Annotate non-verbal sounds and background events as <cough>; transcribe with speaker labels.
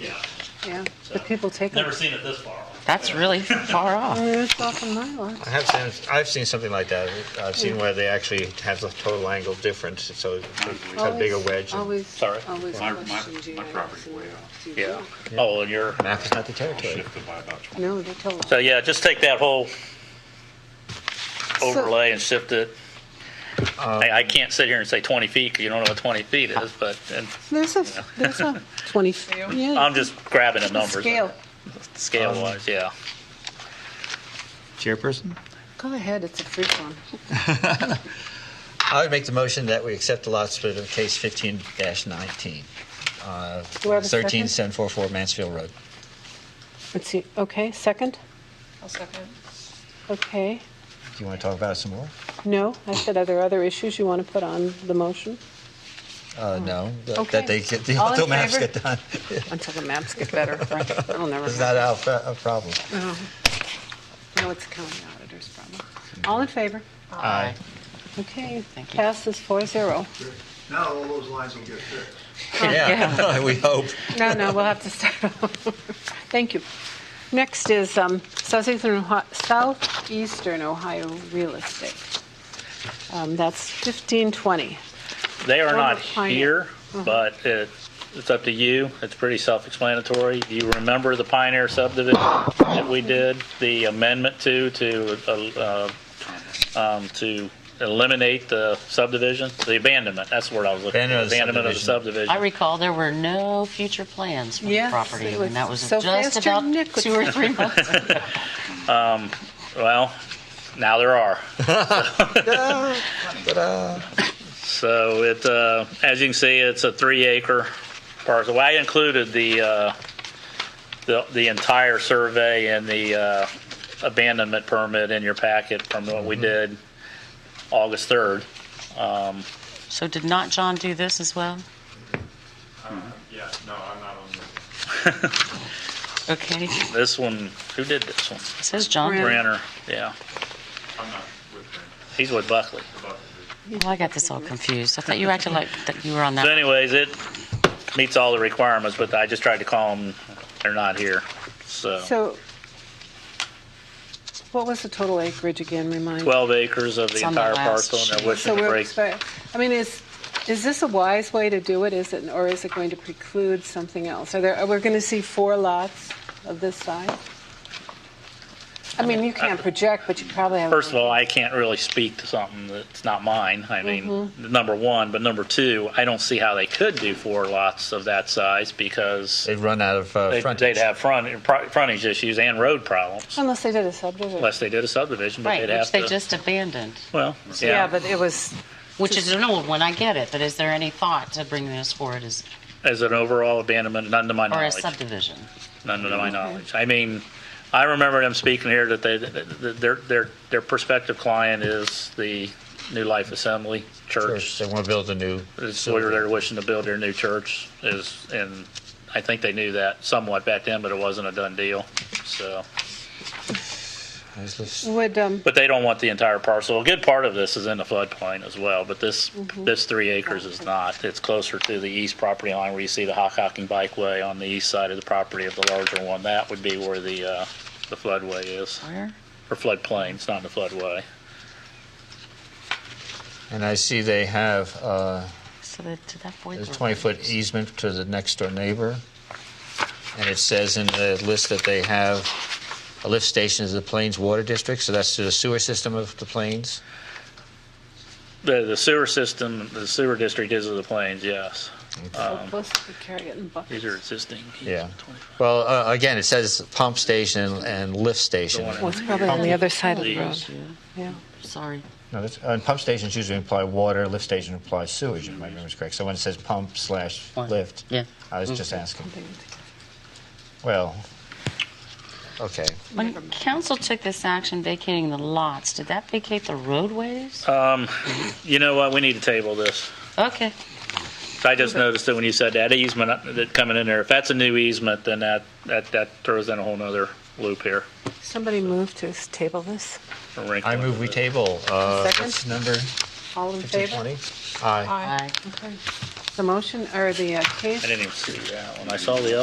Speaker 1: Yeah,
Speaker 2: yeah,
Speaker 1: So-
Speaker 2: but people take
Speaker 1: never
Speaker 2: them.
Speaker 1: seen it this far.
Speaker 3: That's really far off.
Speaker 2: Oh, it's off in my lot.
Speaker 4: I have seen, I've seen something like that. I've seen where they actually have the total angle difference, so it's got a bigger
Speaker 2: Always-
Speaker 4: wedge. and
Speaker 2: Always,
Speaker 1: Sorry.
Speaker 2: always
Speaker 5: My- my-
Speaker 2: questioned you
Speaker 5: my
Speaker 2: guys
Speaker 5: property
Speaker 2: and
Speaker 5: way out.
Speaker 2: you
Speaker 1: Yeah.
Speaker 2: do.
Speaker 1: Oh, and you're,
Speaker 4: Map is not the territory.
Speaker 5: shifted by about 20.
Speaker 2: No, they told us.
Speaker 1: so yeah, just take that whole overlay and shift it. I, I can't sit here and say 20 feet, because you don't know what 20 feet is, but, and
Speaker 2: There's a, there's <laughs> a 20, yeah,
Speaker 1: I'm just grabbing the numbers.
Speaker 2: scale.
Speaker 1: Scale wise, yeah.
Speaker 4: Chairperson?
Speaker 2: Go ahead, it's a free one.
Speaker 4: I would make the motion that we accept the lot split of case 15-19. uh,
Speaker 2: Do I have a
Speaker 4: 13
Speaker 2: second?
Speaker 4: 744 Mansfield Road.
Speaker 2: Let's see, okay, second?
Speaker 6: I'll second.
Speaker 2: Okay.
Speaker 4: Do you want to talk about it some more?
Speaker 2: No, I said, are there other issues you want to put on the motion?
Speaker 4: Uh, no, that-
Speaker 2: Mm-hmm. Okay.
Speaker 4: that they get, <laughs> the
Speaker 2: All in
Speaker 4: auto maps
Speaker 2: favor?
Speaker 4: get done.
Speaker 2: Until the maps get better, Frank. I'll never.
Speaker 4: It's not our pro- our problem.
Speaker 2: No, No, it's a county auditor's problem. All in favor?
Speaker 4: Aye.
Speaker 2: Okay,
Speaker 3: Thank you.
Speaker 2: passes four zero.
Speaker 7: Now all those lines will get fixed.
Speaker 2: Oh,
Speaker 4: Yeah, <laughs> we hope.
Speaker 2: No, no, we'll have to start over. <laughs> Thank you. Next is um, Southeastern, Ohi- Southeastern Ohio Real Estate. Um, That's 1520.
Speaker 1: They are not
Speaker 2: Former client.
Speaker 1: here, but it, it's up to you. It's pretty self-explanatory. Do you remember the Pioneer subdivision that we did, the amendment to, to, uh, uh, um, to eliminate the subdivision, the abandonment? That's the word I was looking for.
Speaker 4: Abandonment of the
Speaker 1: Abandonment of the
Speaker 3: I
Speaker 1: subdivision.
Speaker 3: recall there were no future plans for the
Speaker 2: Yes,
Speaker 3: property,
Speaker 2: it was
Speaker 3: and that was just
Speaker 2: Sylvester
Speaker 3: about
Speaker 2: Nicholson.
Speaker 3: two or three months.
Speaker 1: Well, now there are. So it, uh, as you can see, it's a three acre parcel. Well, I included the, uh, the, the entire survey and the, uh, abandonment permit in your packet from what we did August 3rd.
Speaker 3: So did not John do this as well?
Speaker 5: Yeah, no, I'm not on the
Speaker 3: Okay, it
Speaker 1: This one, who did this one?
Speaker 3: says John.
Speaker 2: Brent.
Speaker 1: Brenner, yeah.
Speaker 5: I'm not with them.
Speaker 1: He's with Buckley.
Speaker 3: Well, I got this all confused. I thought you acted like that you were on
Speaker 1: So
Speaker 3: that.
Speaker 1: anyways, it meets all the requirements, but I just tried to call them. They're not here, so.
Speaker 2: So what was the total acreage again, remind? me?
Speaker 1: 12 acres of the
Speaker 3: It's on the
Speaker 1: entire
Speaker 3: last
Speaker 1: parcel, and they're
Speaker 3: sheet.
Speaker 1: wishing
Speaker 2: So
Speaker 1: to
Speaker 2: we're,
Speaker 1: break.
Speaker 2: expect- I mean, is, is this a wise way to do it? Is it, or is it going to preclude something else? Are there, are we going to see four lots of this size? I mean, you can't project, but you probably have.
Speaker 1: First of all, I can't really speak to something that's not mine. I mean,
Speaker 2: Mm-hmm.
Speaker 1: number one, but number two, I don't see how they could do four lots of that size because
Speaker 4: They'd run out of uh,
Speaker 1: they'd
Speaker 4: frontage.
Speaker 1: they'd have front, pro- frontage issues and road problems
Speaker 2: Unless they did a subdivision.
Speaker 1: unless they did a subdivision, but
Speaker 3: Right,
Speaker 1: they'd
Speaker 3: which
Speaker 1: have
Speaker 3: they
Speaker 1: to.
Speaker 3: just abandoned,
Speaker 1: Well,
Speaker 2: Yeah,
Speaker 1: yeah.
Speaker 2: but it was,
Speaker 3: which is an old one, I get it, but is there any thought to bring this forward as,
Speaker 1: As an overall abandonment, none to my
Speaker 3: or a
Speaker 1: knowledge.
Speaker 3: subdivision?
Speaker 1: None to my knowledge. I mean, I remember them speaking here that they, that their, their, their prospective client is the New Life Assembly
Speaker 4: Church,
Speaker 1: Church
Speaker 4: They want to build a new.
Speaker 1: It's where they're wishing to build their new church is, and I think they knew that somewhat back then, but it wasn't a done deal. So,
Speaker 2: would, um,
Speaker 1: but they don't want the entire parcel. A good part of this is in the floodplain as well, but this,
Speaker 2: Mm-hmm.
Speaker 1: this three acres is not. It's closer to the east property line where you see the Hockhocking Bikeway on the east side of the property of the larger one. That would be where the, uh, the floodway is,
Speaker 3: Where?
Speaker 1: or floodplain. It's not the floodway.
Speaker 4: And I see they have, uh,
Speaker 3: So that, to that point.
Speaker 4: There's
Speaker 3: where-
Speaker 4: 20-foot easement to the next-door neighbor, and it says in the list that they have a lift station is the Plains Water District, so that's to the sewer system of the Plains.
Speaker 1: The, the sewer system, the sewer district is of the plains, yes.
Speaker 2: so supposed to carry it in buckets.
Speaker 1: Um, These are existing.
Speaker 4: Yeah. Well, uh, again, it says pump station and lift station.
Speaker 1: The
Speaker 2: Well,
Speaker 1: one
Speaker 2: it's probably on the other side of the road, yeah.
Speaker 3: Sorry.
Speaker 4: No, that's, and pump stations usually imply water, lift station implies sewage, if my memory's correct. So when it says pump slash
Speaker 3: Water.
Speaker 4: lift,
Speaker 3: Yeah.
Speaker 4: I was just asking. Well, okay.
Speaker 3: When council took this action vacating the lots, did that vacate the roadways?
Speaker 1: Um, you know what? We need to table this.
Speaker 3: Okay.
Speaker 1: I just noticed that when you said that easement uh, that coming in there, if that's a new easement, then that, that, that throws in a whole nother loop here.
Speaker 2: Somebody move to table this.
Speaker 1: A wrinkle
Speaker 4: I move
Speaker 1: into
Speaker 4: we
Speaker 1: it.
Speaker 4: table, uh,
Speaker 2: Second.
Speaker 4: what's number
Speaker 2: All in favor?
Speaker 4: 1520? Aye.
Speaker 3: Aye.
Speaker 2: The motion, or the uh, case?
Speaker 1: I didn't even see that one. I saw the